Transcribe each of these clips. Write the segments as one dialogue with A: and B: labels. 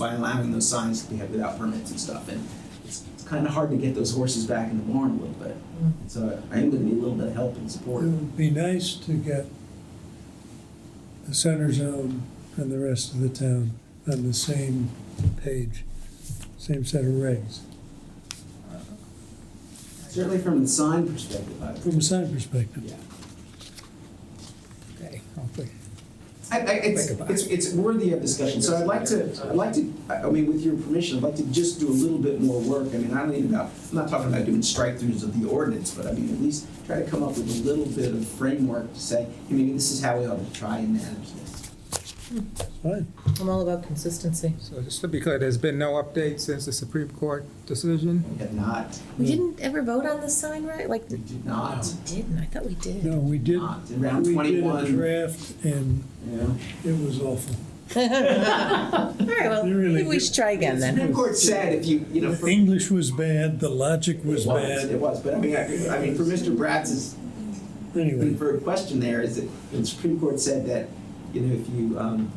A: by allowing those signs to be up without permits and stuff, and it's, it's kind of hard to get those horses back in the barn a little bit.
B: Mm.
A: So I am gonna need a little bit of help and
C: It
A: support.
C: would be nice to get the center zone and the rest of the town on the same page, same set of regs,
A: Certainly from the sign perspective, I,
C: from a sign perspective.
A: yeah.
B: Okay, I'll think.
A: I, I, it's,
B: Think about
A: it's, it's worthy of discussion, so I'd like to, I'd like to, I I mean, with your permission, I'd like to just do a little bit more work, I mean, I don't even know, I'm not talking about doing strike-throughs of the ordinance, but I mean, at least try to come up with a little bit of framework to say, hey, maybe this is how we ought to try and manage this.
C: It's fine.
D: I'm all about consistency.
B: So just to be clear, there's been no update since the Supreme Court decision?
A: We have not,
D: We didn't ever vote on this sign, right? Like,
A: we
D: we
A: did not,
D: didn't, I thought we did.
C: No, we did,
A: not, in round
C: we did
A: twenty-one,
C: a
A: you
C: draft and
A: know.
C: it was awful.
D: All right, well,
C: You really
D: maybe we
C: do.
D: should try again
A: The
D: then.
A: Supreme Court said if you, you know.
C: The
A: for-
C: English was bad, the logic was
A: It was, it
C: bad.
A: was, but I mean, I, I mean, for Mr. Bratz's
C: Anyway,
A: For a question there is that the Supreme Court said that, you know, if you, um,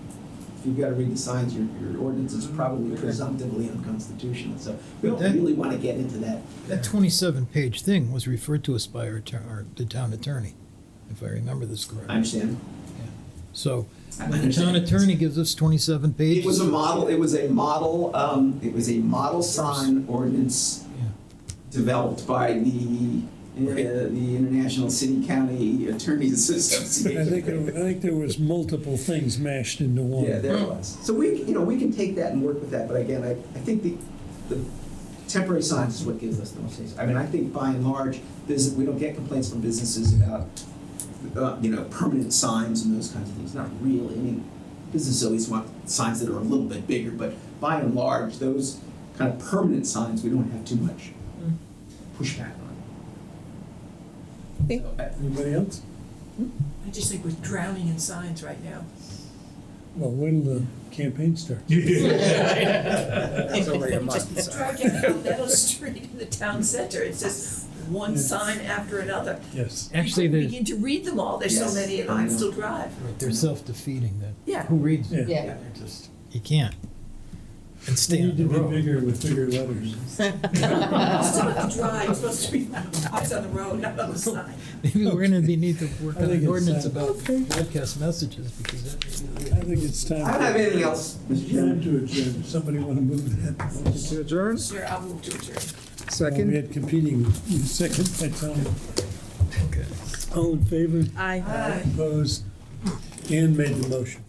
A: if you've got to read the signs, your, your ordinance
C: Mm-hmm.
A: is probably presumptively unconstitutional. So we don't
E: Okay.
A: really want to get into that.
E: That twenty-seven page thing was referred to us by our, attor- our, the town attorney, if I remember this
A: I
E: correctly.
A: understand.
E: So,
A: I
E: when the town
A: understand.
E: attorney gives us twenty-seven pages.
A: It was a model, it was a model, um, it was a model sign ordinance
E: Yeah.
A: developed by the, uh, the International City County Attorneys Association.
C: I think, it- I think there was multiple things mashed into one.
A: Yeah, there it was. So we, you know, we can take that and work with that, but again, I, I think the, the temporary signs is what gives us the most space. I mean, I think by and large, this, we don't get complaints from businesses about, uh, you know, permanent signs and those kinds of things, not really. I mean, businesses always want signs that are a little bit bigger, but by and large, those kind of permanent signs, we don't have too much pushback on.
D: Okay.
A: So, I-
C: Anybody else?
F: I just think we're drowning in signs right now.
C: Well, when the campaign starts.
B: It's only a month,
F: Just drive down Meadow Street in the town center, it's just one sign after another.
C: Yes.
E: Actually,
F: You
E: there's-
F: Begin to read them all, there's so
A: Yes,
F: many, and
A: I
F: I
A: know.
F: still drive.
E: Right, They're self-defeating then.
F: Yeah.
E: Who reads
C: Yeah.
E: it?
D: Yeah.
E: They're just- You can't. And
C: They
E: stay on
C: need
E: the
C: to be
E: road.
C: bigger with bigger letters.
F: You're supposed to drive, you're supposed to be eyes on the road, not on the sign.
E: Maybe we're gonna be need to work
C: I
E: on
C: think
E: an
C: it's,
E: ordinance
C: uh,
E: about broadcast messages because that may be.
C: I think it's time.
A: I don't have anything else, Mr. Chairman.
C: Time to adjourn. Somebody want to move that?
B: To adjourn?
F: Sure, I'll move to adjourn.
C: Well, We
B: Second?
C: had competing second by Tom.
E: Okay.
C: All in favor?
D: Aye.
F: Aye.
C: Opposed? Ann made the motion.